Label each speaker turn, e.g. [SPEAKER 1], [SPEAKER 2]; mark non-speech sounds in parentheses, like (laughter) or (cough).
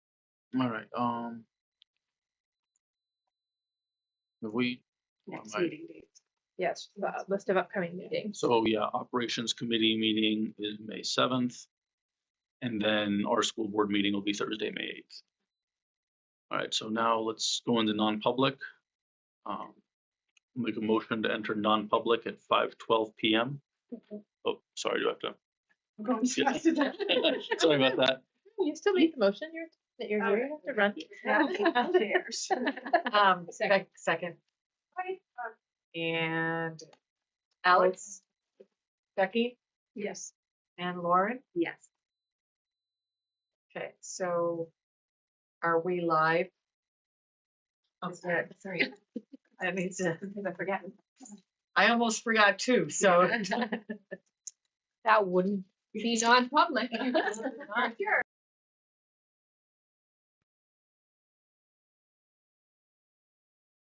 [SPEAKER 1] All right. Um, if we, well,
[SPEAKER 2] next
[SPEAKER 1] my-
[SPEAKER 2] meeting dates. (laughs)
[SPEAKER 3] Yes, the list of upcoming meetings.
[SPEAKER 1] so yeah, operations committee meeting is May seventh. And then our school board meeting will be Thursday, May eighth. All right, so now let's go into non-public. Um, Make a motion to enter non-public at five twelve PM.
[SPEAKER 3] Mhm.
[SPEAKER 1] Oh, sorry, do I have
[SPEAKER 2] I'm going
[SPEAKER 1] Yeah.
[SPEAKER 2] fast at that.
[SPEAKER 1] to? Sorry about that.
[SPEAKER 3] You still made the motion, you're, that you're
[SPEAKER 2] All
[SPEAKER 3] here, you have to
[SPEAKER 2] (laughs)
[SPEAKER 3] run.
[SPEAKER 2] Now
[SPEAKER 3] (laughs)
[SPEAKER 2] who cares?
[SPEAKER 4] Um,
[SPEAKER 3] Second.
[SPEAKER 4] sec- second, and Alex, Becky,
[SPEAKER 2] (laughs) Yes.
[SPEAKER 4] and Lauren.
[SPEAKER 2] Yes.
[SPEAKER 4] Okay, so are we live? I'm sorry, sorry. I mean, I forgot. I almost forgot too, so. (laughs)
[SPEAKER 3] That wouldn't be non-public.
[SPEAKER 4] All right.